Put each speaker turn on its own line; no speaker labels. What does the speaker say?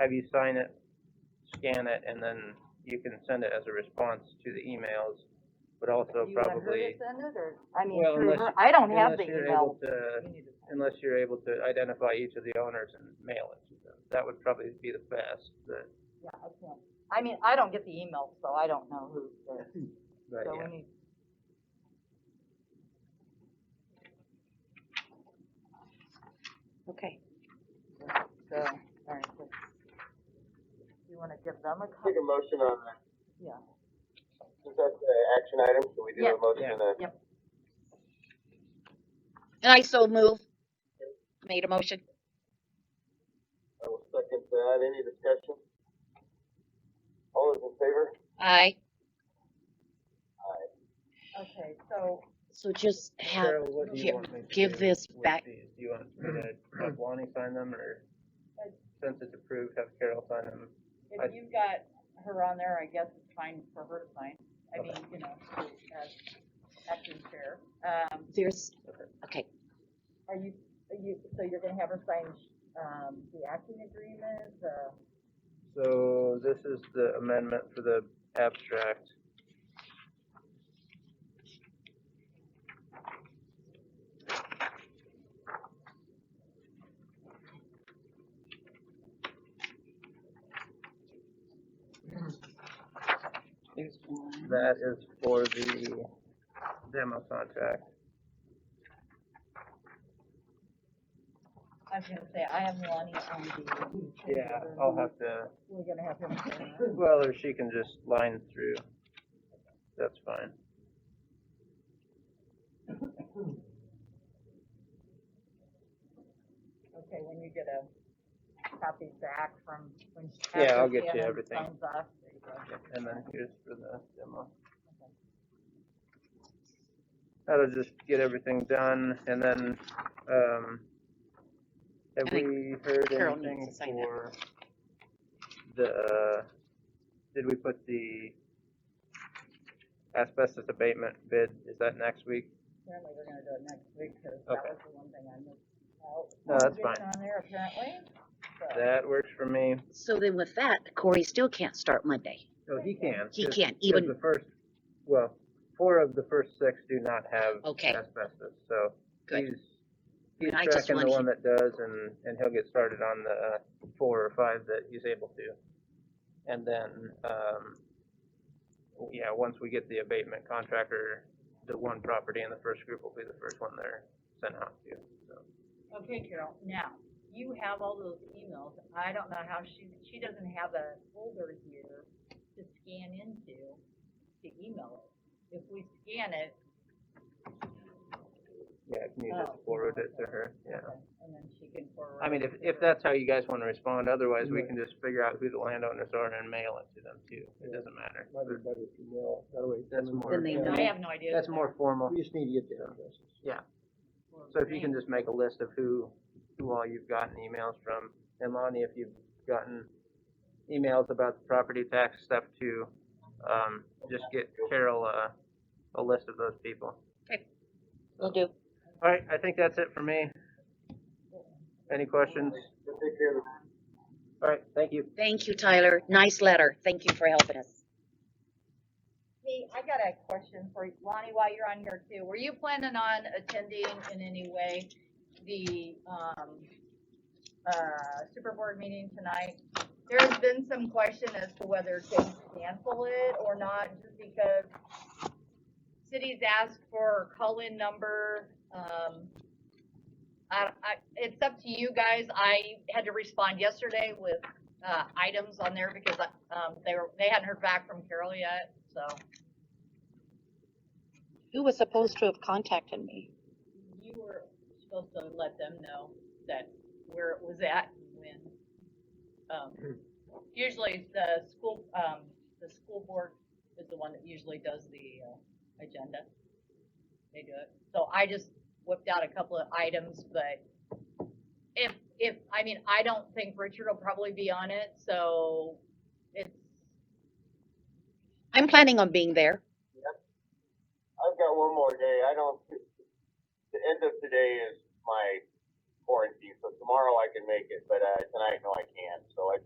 have you sign it, scan it, and then you can send it as a response to the emails, but also
Do you want her to
probably,
send it, or, I mean,
Well,
through
unless
her, I don't have
unless
the
you're able
email.
to,
You need to-
unless you're able to identify each of the owners and mail it to them. That would probably be the best, but,
Yeah, I can't, I mean, I don't get the emails, so I don't know who, they're-
but
so
yeah.
we need.
Okay.
So, all right, so you wanna give them a
Take
copy?
a motion on that,
Yeah,
since that's an action item, so we do
Yeah.
a motion
Yeah.
on that.
And I so move. Made a motion.
I will second that, any discussion? All those in favor?
Aye.
okay, so,
So just have,
Cheryl, what do you
gi-
want me to
give
do
this
with
back-
these? Do you want me to have Lonnie sign them, or
Uh,
since it's approved, have Carol sign them? I-
if you've got her on there, I guess it's fine for her to sign, I
Okay.
mean, you know, as acting chair. Um,
there's, okay,
Are you, are you, so you're gonna have her sign, um, the acting agreement, uh,
So this is the amendment for the abstract. That is for the demo contract.
I was gonna say, I have Lonnie on the.
Yeah, I'll have to,
We're gonna have him sign it.
well, or she can just line through. That's fine.
Okay, when you get a copy back from, when. she-
Yeah, I'll
after
get you
Shannon
everything.
signs off, there you go.
And then here's for the demo. That'll just get everything done and then, um, have
I think
we heard
Carol needs
anything
to sign that.
for the, did we put the asbestos abatement bid, is that next week?
Apparently, we're gonna do it next week, cause that
Okay.
was the one thing I missed out.
No, that's
It's
fine.
On there apparently, so,
That works for me.
so then with that, Corey still can't start Monday.
Oh, he can.
He
'cause-
can't
'cause
even,
The first, well, four of the first six do not have
okay,
asbestos, so.
good.
He's,
I mean,
he's
I just
tracking the
wanna
one that does and, and he'll get started on the uh, four or five that he's able to. And then, um, yeah, once we get the abatement contractor, the one property in the first group will be the first one they're sent out to, so.
okay, Carol, now, you have all those emails, I don't know how she, she doesn't have a folder here to scan into to email it. If we scan it,
Yeah, can you
Oh.
just forward it to her, yeah.
Okay, And then she can forward.
I mean, if, if
that.
that's how you guys wanna respond, otherwise we can just figure out who the landowners are and mail it to them too, it doesn't matter.
Might be better if you mail, that way.
That's more-
Then they
I have no idea.
That's
what
more formal.
We just need to get the addresses.
that-
So if you can just make a list of who, who all you've gotten emails from, and Lonnie, if you've gotten emails about the property tax stuff too, um, just get Carol a, a list of those people.
Will do.
All right, I think that's it for me. Any questions?
Just take care of the
All right, thank you.
Thank you, Tyler. Nice letter. Thank you for helping us.
Hey, I got a question for you. Lonnie, while you're on here too, were you planning on attending in any way the, um, uh, super board meeting tonight? There's been some question as to whether to cancel it or not, just because cities ask for call-in number, um, I, I, it's up to you guys. I had to respond yesterday with, uh, items on there because, um, they were, they hadn't heard back from Carol yet, so.
who was supposed to have contacted me.
you were supposed to let them know that where it was at and when. Um, usually the school, um, the school board is the one that usually does the, uh, agenda. They do it. So I just whipped out a couple of items, but if, if, I mean, I don't think Richard will probably be on it, so it's,
I'm planning on being there.
I've got one more day. I don't. The end of today is my quarantine, so tomorrow I can make it, but uh, tonight no, I can't. So I